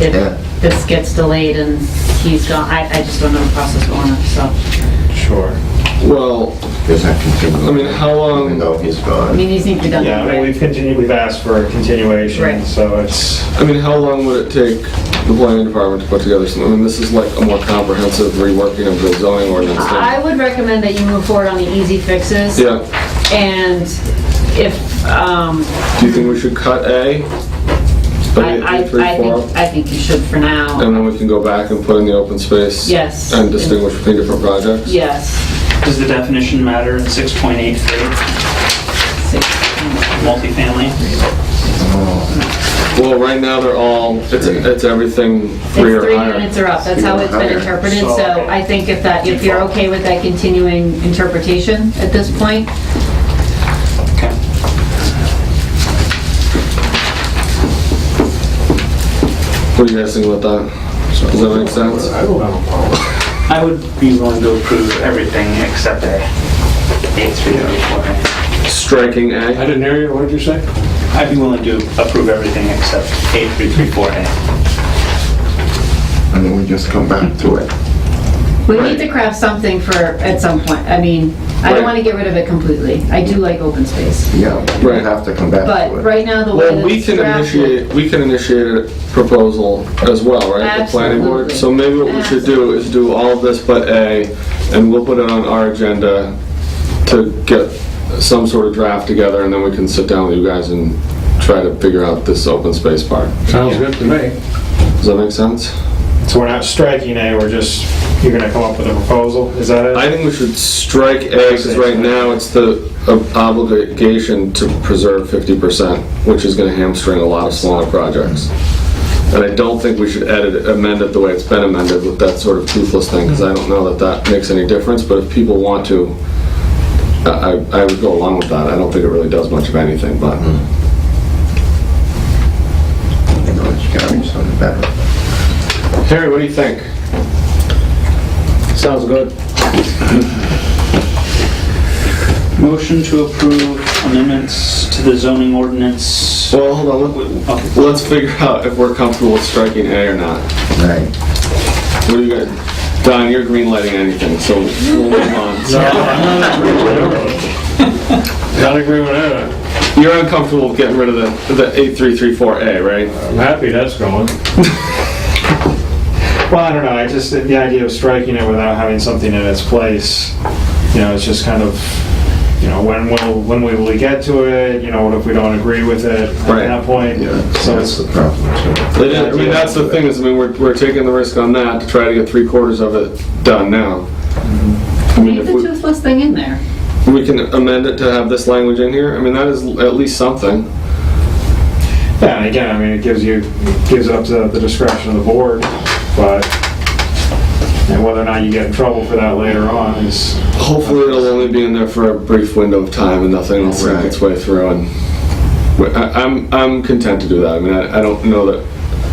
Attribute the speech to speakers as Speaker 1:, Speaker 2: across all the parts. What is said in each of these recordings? Speaker 1: if
Speaker 2: Yeah.
Speaker 1: this gets delayed and he's gone, I, I just don't know the process going up, so.
Speaker 3: Sure.
Speaker 2: Well,
Speaker 4: Does that continue?
Speaker 2: I mean, um, how long-
Speaker 4: Even though he's
Speaker 1: I
Speaker 4: gone.
Speaker 1: mean, these need to be done.
Speaker 3: Yeah, I mean,
Speaker 1: right?
Speaker 3: we've continued, we've asked for a continuation,
Speaker 1: Right.
Speaker 3: so it's,
Speaker 2: I mean, how long would it take the planning department to put together something? I mean, this is like a more comprehensive reworking of the zoning ordinance
Speaker 1: I
Speaker 2: thing.
Speaker 1: would recommend that you move forward on the easy fixes.
Speaker 2: Yeah,
Speaker 1: And if, um,
Speaker 2: do you think we should cut A?
Speaker 1: I,
Speaker 2: Maybe
Speaker 1: I,
Speaker 2: A three,
Speaker 1: I
Speaker 2: four,
Speaker 1: think, I think you should for now,
Speaker 2: And then we can go back and put in the open space?
Speaker 1: Yes.
Speaker 2: And distinguish between different projects?
Speaker 1: yes.
Speaker 5: Does the definition matter in 6.83,
Speaker 1: Six.
Speaker 5: multifamily?
Speaker 2: Well, right now, they're all, it's, it's everything three
Speaker 1: It's
Speaker 2: or
Speaker 1: three
Speaker 2: higher.
Speaker 1: units are up, that's how it's been
Speaker 4: Three or higher.
Speaker 1: interpreted,
Speaker 5: So-
Speaker 1: so I think if that, if you're okay with that continuing interpretation at this point,
Speaker 5: Okay.
Speaker 2: What do you guys think about that? Does that make sense?
Speaker 5: I would be willing to approve everything except A. A3
Speaker 2: Striking A?
Speaker 6: I didn't hear you, what did you say?
Speaker 5: I'd be willing to approve everything except A334A.
Speaker 4: And then we just come back to it.
Speaker 1: we
Speaker 2: Right.
Speaker 1: need to craft something for, at some point, I mean, I
Speaker 2: Right.
Speaker 1: don't want to get rid of it completely, I do like open space,
Speaker 4: Yeah, we
Speaker 2: Right.
Speaker 4: have to come back
Speaker 1: but
Speaker 4: to it.
Speaker 1: right now, the way
Speaker 2: Well,
Speaker 1: that
Speaker 2: we
Speaker 1: it's
Speaker 2: can
Speaker 1: drafted.
Speaker 2: initiate, we can initiate a proposal as well, right? The planning board. So maybe what we should do is do all of this but A, and we'll put it on our agenda to get some sort of draft together, and then we can sit down with you guys and try to figure out this open space part.
Speaker 6: Sounds good to me.
Speaker 2: Does that make sense?
Speaker 3: so we're not striking A, we're just, you're gonna come up with a proposal, is that it?
Speaker 2: I think we should strike A, because right now it's the ob- obligation to preserve fifty percent, which is gonna hamstring a lot of smaller projects. And I don't think we should edit, it- amend it the way it's been amended with that sort of toothless thing, because I don't know that that makes any difference, but if people want to, I, I I would go along with that. I don't think it really does much of anything, but,
Speaker 4: You know, it's gotta be something better.
Speaker 2: Harry, what do you think?
Speaker 6: Sounds good.
Speaker 5: Motion to approve amendments to the zoning ordinance.
Speaker 2: Well, hold on, let-
Speaker 5: Okay.
Speaker 2: let's figure out if we're comfortable with striking A or not.
Speaker 4: Right.
Speaker 2: What do you guys, Don, you're green lighting anything, so we'll move on.
Speaker 6: Not agree with that.
Speaker 2: You're uncomfortable with getting rid of the, the 8334A, right?
Speaker 6: I'm happy that's going.
Speaker 3: Well, I don't know, I just, the idea of striking it without having something in its place, you know, it's just kind of, you know, when will, when will we get to it, you know, what if we don't agree with it at
Speaker 2: Right.
Speaker 3: that point? So
Speaker 4: That's
Speaker 3: it's,
Speaker 4: the problem, too.
Speaker 2: They didn't- I mean, that's the thing, is, I mean, we're, we're taking the risk on that to try to get three quarters of it done now. I mean,
Speaker 1: Leave
Speaker 2: if
Speaker 1: the
Speaker 2: we,
Speaker 1: toothless thing in there.
Speaker 2: we can amend it to have this language in here, I mean, that is at least something.
Speaker 3: yeah, and again, I mean, it gives you, it gives up to the discretion of the board, but, and whether or not you get in trouble for that later on is,
Speaker 2: Hopefully, it'll only be in there for a brief window of time and nothing will sink its way through and, we- I, I'm, I'm content to do that, I mean, I, I don't know that,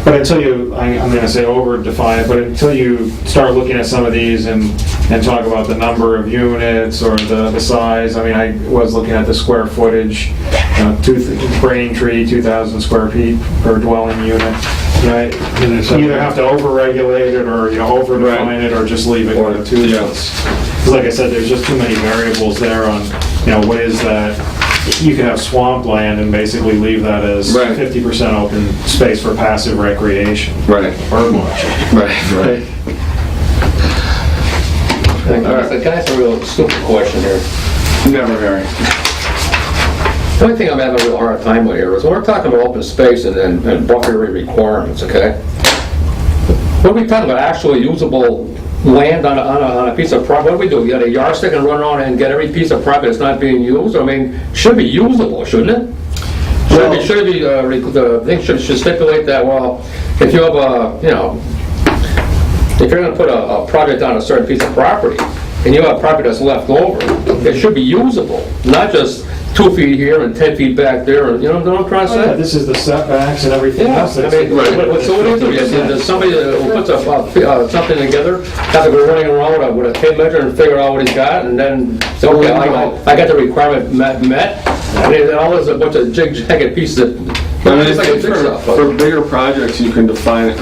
Speaker 3: But until you, I- I'm going to say over-define it, but until you start looking at some of these and, and talk about the number of units or the, the size, I mean, I was looking at the square footage, you know, two, Braintree, 2,000 square feet per dwelling unit, right?
Speaker 6: And
Speaker 3: You
Speaker 6: it's-
Speaker 3: either have to over-regulate it, or, you know, over-define it, or just leave it
Speaker 2: Or-
Speaker 3: with two
Speaker 2: yeah.
Speaker 3: units. 'Cause like I said, there's just too many variables there on, you know, what is that? You could have swampland and basically leave that as
Speaker 2: Right.
Speaker 3: 50% open space for passive recreation.
Speaker 2: right,
Speaker 3: Bird watching.
Speaker 2: right, right.
Speaker 7: Can
Speaker 2: All right.
Speaker 7: I can I ask a real stupid question here?
Speaker 2: Never, Harry.
Speaker 7: The only thing I'm having a real hard time with here is when we're talking about open space and- and and buffer area requirements, okay? What are we talking about, actually usable land on a, on a, on a piece of property? What do we do, get a yardstick and run around and get every piece of property that's not being used? I mean, should be usable, shouldn't it? Should it be, should it be, uh, re- the thing should should stipulate that, well, if you have a, you know, if you're gonna put a, a project on a certain piece of property, and you have property that's left over, it should be usable, not just two feet here and 10 feet back there, and, you know what I'm trying to
Speaker 3: Oh, Yeah,
Speaker 7: say?
Speaker 3: This is the setbacks and everything
Speaker 7: Yeah,
Speaker 3: else.
Speaker 7: I mean, what- what- so what do you do? Is it- Does somebody uh, who puts a, uh, something together, have to go running around uh, with a- with a tape measure and figure out what he's got, and then, say, okay, I, I- I got the requirement met, met, and then all this a bunch of jig-jagged pieces that,
Speaker 2: I mean,
Speaker 7: it's like a
Speaker 2: for,
Speaker 7: jigsaw puzzle.
Speaker 2: for bigger projects, you can define it